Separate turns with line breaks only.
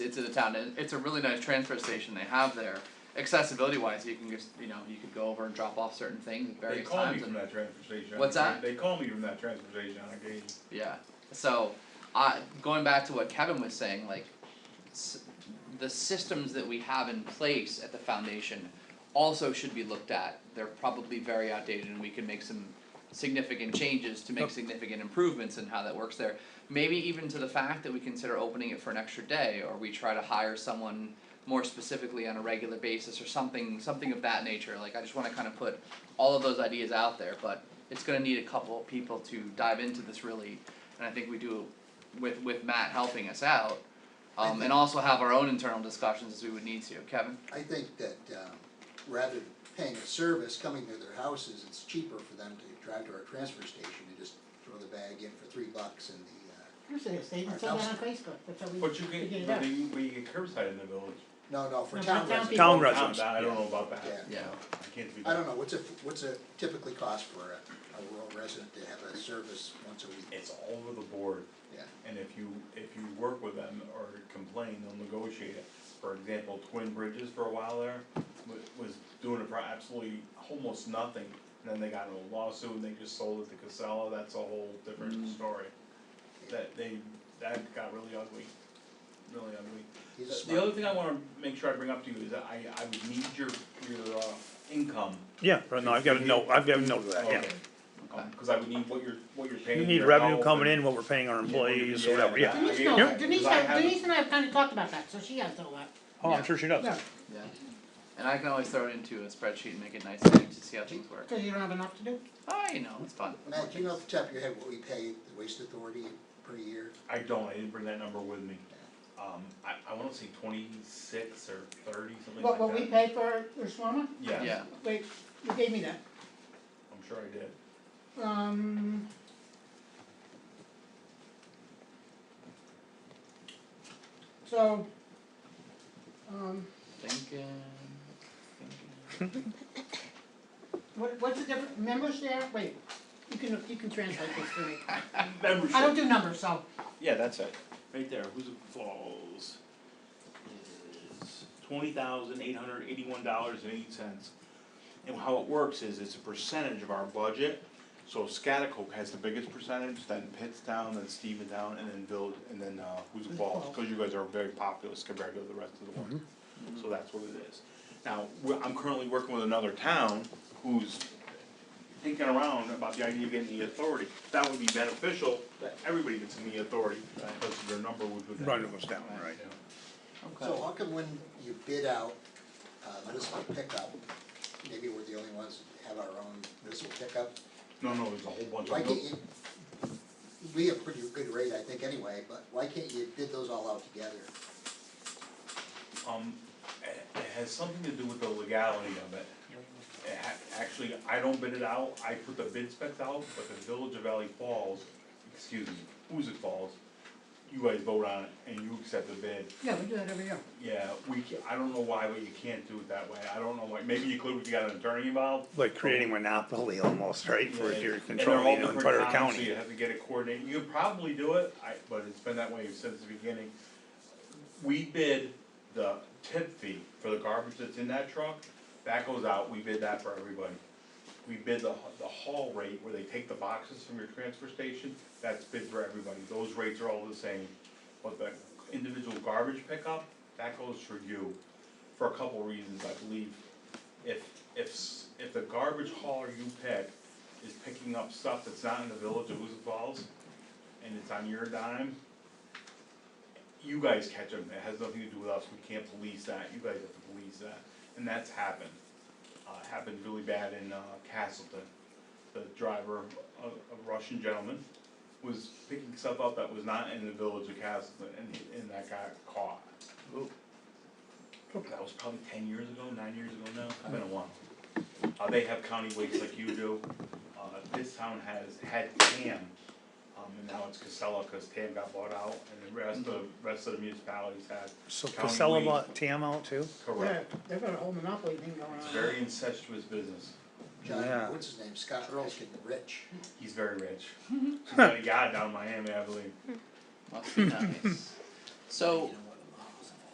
to the town, and it's a really nice transfer station they have there. Accessibility wise, you can just, you know, you could go over and drop off certain things at
They
various
call me
times and,
from that transfer station. on
What's
occasion.
that?
They call me from that transfer station on occasion.
yeah, so, I, going back to what Kevin was saying, like. S- the systems that we have in place at the foundation also should be looked at, they're probably very outdated and we can make some significant changes to make significant improvements in how that works there. Maybe even to the fact that we consider opening it for an extra day, or we try to hire someone more specifically on a regular basis or something, something of that nature, like I just wanna kind of put all of those ideas out there, but it's gonna need a couple of people to dive into this really, and I think we do with with Matt helping us out. Um and also have our own internal discussions as we would need to, Kevin?
I think that um, rather than paying a service coming to their houses, it's cheaper for them to drive to our transfer station and just throw the bag in for three bucks in the, uh,
Here's a statement, sell that on Facebook, that's how we,
But you
we
get,
get it
but
out.
you, but you get curbside in the village.
no, no, for
No, for
town
town
residents.
people.
Town
Down
residents,
down, I don't know about that.
Yeah.
Yeah.
I can't speak.
I don't know, what's a, what's a typically cost for a, a rural resident to have a service once a week?
It's all over the board.
Yeah.
And if you, if you work with them or complain, they'll negotiate it. For example, Twin Bridges for a while there wa- was doing it for absolutely almost nothing. And then they got in a lawsuit and they just sold it to Casella, that's a whole different
Mm.
story. That they, that got really ugly, really ugly.
He's a
The
smart-
other thing I wanna make sure I bring up to you is that I, I would need your, your, uh, income.
Yeah, right, no, I've got a note, I've got a note of that, yeah.
Okay. Um, cause I would need what you're, what you're paying.
You need
your
revenue
health
coming
and-
in, what we're paying our employees,
Yeah,
or whatever, yeah.
that-
Denise
I mean,
knows,
I-
Denise,
I
has-
have-
Denise and I have kinda talked about that, so she has all that.
Oh, I'm sure she does.
Yeah,
Yeah. And I can always throw it into a spreadsheet and make it nice and neat to see how things work.
Cause you don't have enough to do.
Oh, you know, it's fun.
Matt, do you know off the top of your head what we pay the waste authority per year?
I don't, I didn't bring that number with me. Um, I, I wanna say twenty-six or thirty, something like
What,
that.
what we pay for, for Swarma,
Yes,
Yeah,
wait, you gave me that,
I'm sure I did.
um. So, um,
thinking, thinking.
what, what's the difference, members there, wait, you can, you can translate this for me,
Membership.
I don't do numbers, so,
Yeah, that's it. Right there, who's it falls? Is twenty thousand eight hundred eighty-one dollars and eight cents. And how it works is it's a percentage of our budget. So Scotticoke has the biggest percentage, then Pittstown, then Steventown, and then Village, and then uh, Who's it Falls, cause you guys are very populous compared to the rest of the ones. So that's what it is. Now, we- I'm currently working with another town who's thinking around about the idea of getting the authority. That would be beneficial, that everybody gets in the authority, because their number would go down.
Right, it goes down, right.
So
Okay.
how come when you bid out uh, municipal pickup, maybe we're the only ones that have our own municipal pickup?
No, no, there's a whole bunch
Why
of them.
can't you, we have pretty good rate, I think, anyway, but why can't you bid those all out together?
Um, it, it has something to do with the legality of it. It ha- actually, I don't bid it out, I put the bid specs out, but the Village of Valley Falls, excuse me, Who's it Falls, you guys vote on it and you accept the bid.
yeah, we do that every year.
Yeah, we, ca- I don't know why, but you can't do it that way, I don't know why, maybe you could if you got an attorney involved,
Like creating monopoly almost, right, for
Yeah,
your
and they're all
control, you know,
different
entire
towns, So you
county.
have to get it coordinated, you could probably do it, I, but it's been that way since the beginning. We bid the tip fee for the garbage that's in that truck, that goes out, we bid that for everybody. We bid the, the haul rate where they take the boxes from your transfer station, that's bid for everybody, those rates are all the same. But the individual garbage pickup, that goes for you, for a couple reasons, I believe. If, if, s- if the garbage hauler you pick is picking up stuff that's not in the village of Huzik Falls, and it's on your dime, you guys catch them, it has nothing to do with us, we can't police that, you guys have to police that, and that's happened. Uh, it happened really bad in, uh, Castleton, the driver, a, a Russian gentleman, was picking stuff up that was not in the village of Castleton, and, he- and that got caught. That was probably ten years ago, nine years ago now, it's been a while. Uh, they have county weights like you do, uh, this town has had TAM, um, and now it's Casella, cause TAM got bought out, and the rest of, rest of the municipalities have
So
county
Casella
weight.
bought TAM out too?
Yeah,
Correct,
they've got a whole monopoly thing going on.
it's a very incestuous business,
Yeah.
John, what's his name, Scott Erskine Rich,
he's very rich. He's got a yacht down in Miami, I believe,
Must be nice. So,